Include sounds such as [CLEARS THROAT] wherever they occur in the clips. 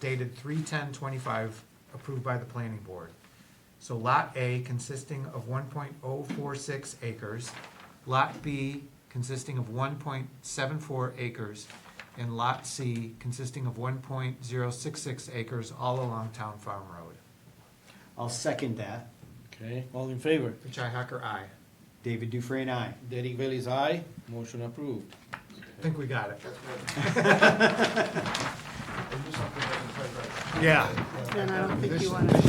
dated 310-25, approved by the planning board. So Lot A consisting of one point oh four six acres, Lot B consisting of one point seven four acres, and Lot C consisting of one point zero six six acres all along Town Farm Road. I'll second that. Okay, all in favor? Richi Hacker, I David Dufresne, aye. Derek Bailey's aye, motion approved. Think we got it. That's good. I knew something wasn't quite right. Yeah. Then I don't think you This- want to, If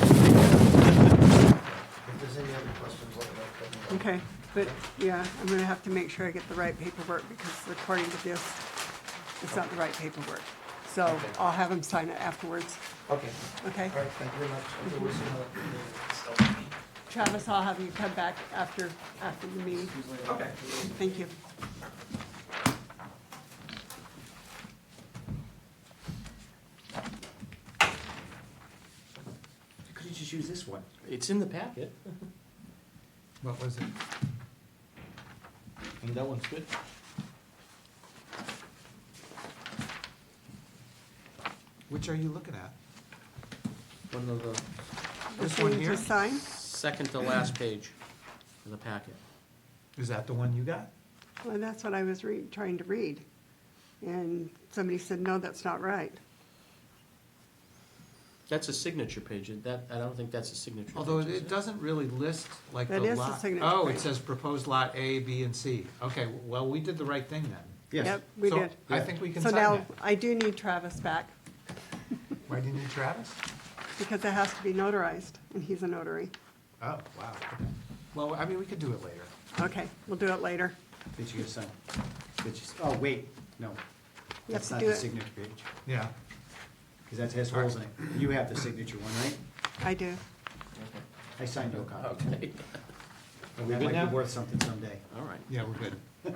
there's any other questions, let me know. Let me know. okay, but, yeah, I'm gonna have to make sure I get the right paperwork, because according to this, it's not the right paperwork. So Okay. I'll have them sign it afterwards, Okay, okay? all right, thank you very much. There was another meeting, Travis, I'll have you come back after, after the meeting. so- Thank you. You could've just used this one. It's in the packet. What was it? And that one's good. Which are you looking at? One of the This So one you here? just sign? second to last page of the packet. Is that the one you got? Well, that's what I was re, trying to read. And somebody said, no, that's not right. That's a signature page, that, I don't think that's a signature. Although page, is it doesn't really list like the That lot. is the signature Oh, it page. says proposed lot A, B, and C. Okay, well, we did the right thing then. Yes. Yep, we So did. I think we can So sign now, that. I do need Travis back, Why do you need Travis? because it has to be notarized, and he's a notary. Oh, wow. Well, I mean, we could do it later. Okay, we'll do it later. Did you get a sign? Did you, oh, wait, no. You have That's to not do the it. signature page, Yeah. because that has holes in it. You have the signature one, right? I do. I signed your copy. Okay, [LAUGHS] we That good might now? be worth something someday. all right. Yeah, we're good.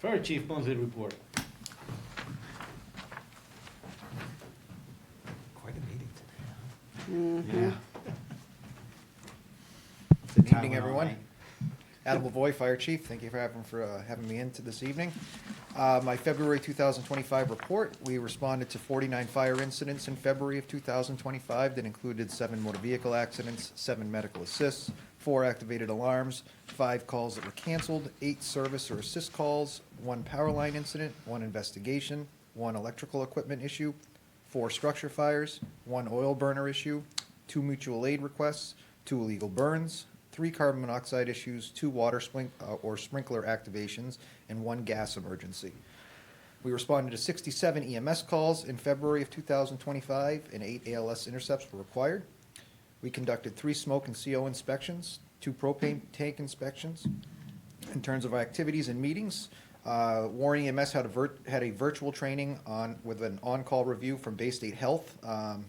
Fire Chief Ponsley report. Quite a meeting today. huh? Yeah. Good evening, everyone. Adam Lavoy, Fire Chief, thank you for having, for uh, having me in to this evening. Uh, My February 2025 report, we responded to 49 fire incidents in February of 2025 that included seven motor vehicle accidents, seven medical assists, four activated alarms, five calls that were canceled, eight service or assist calls, one power line incident, one investigation, one electrical equipment issue, four structure fires, one oil burner issue, two mutual aid requests, two illegal burns, three carbon monoxide issues, two water splink, uh, or sprinkler activations, and one gas emergency. We responded to 67 EMS calls in February of 2025, and eight ALS intercepts were required. We conducted three smoke and CO inspections, two propane tank inspections, in terms of our activities and meetings, uh, Warren EMS had a vir- had a virtual training on, with an on-call review from Bay State Health, um,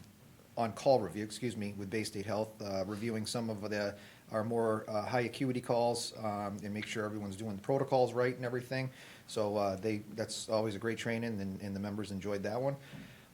on-call review, excuse me, with Bay State Health, uh, reviewing some of the, our more, uh, high acuity calls, um, and make sure everyone's doing the protocols right and everything. So, uh, they, that's always a great training, and, and the members enjoyed that one.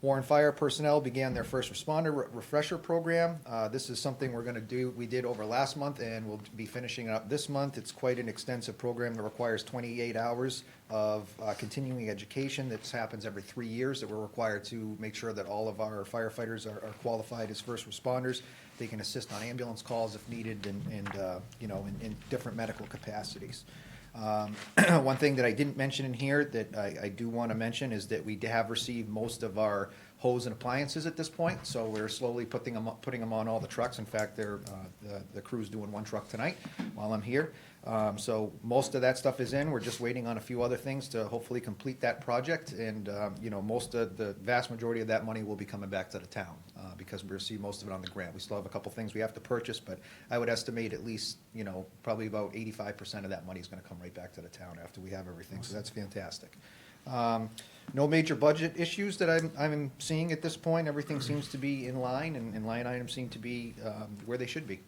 Warren Fire personnel began their first responder re- refresher program. Uh, This is something we're going to do, we did over last month, and we'll be finishing up this month. It's quite an extensive program that requires 28 hours of uh, continuing education. This happens every three years, that we're required to make sure that all of our firefighters are are qualified as first responders. They can assist on ambulance calls if needed and, and, uh, you know, in- in different medical capacities. Um, [CLEARS THROAT] One thing that I didn't mention in here that I, I do want to mention is that we have received most of our hose and appliances at this point, so we're slowly putting them, putting them on all the trucks. In fact, they're, uh, the- the crew's doing one truck tonight while I'm here. Um, So most of that stuff is in, we're just waiting on a few other things to hopefully complete that project. And, um, you know, most of, the vast majority of that money will be coming back to the town uh, because we receive most of it on the grant. We still have a couple things we have to purchase, but I would estimate at least, you know, probably about eighty-five percent of that money is gonna come right back to the town after we have everything, so that's fantastic. Um, No major budget issues that I'm, I'm seeing at this point, everything seems to be in line, and, and line items seem to be um, where they should be,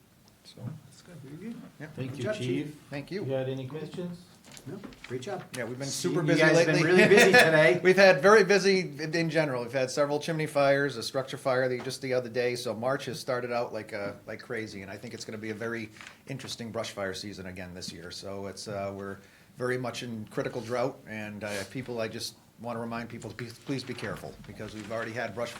so, yeah, Thank Good you, job, Chief. thank You you. had any questions? No, Great job. Yeah, we've been See, super busy lately. You guys been really [LAUGHS] busy today. We've had very busy in general. We've had several chimney fires, a structure fire the- just the other day. So March has started out like uh, like crazy, and I think it's going to be a very interesting brush fire season again this year. So it's uh, we're very much in critical drought, and uh, people I just want to remind people to be- please be careful, because we've already had brush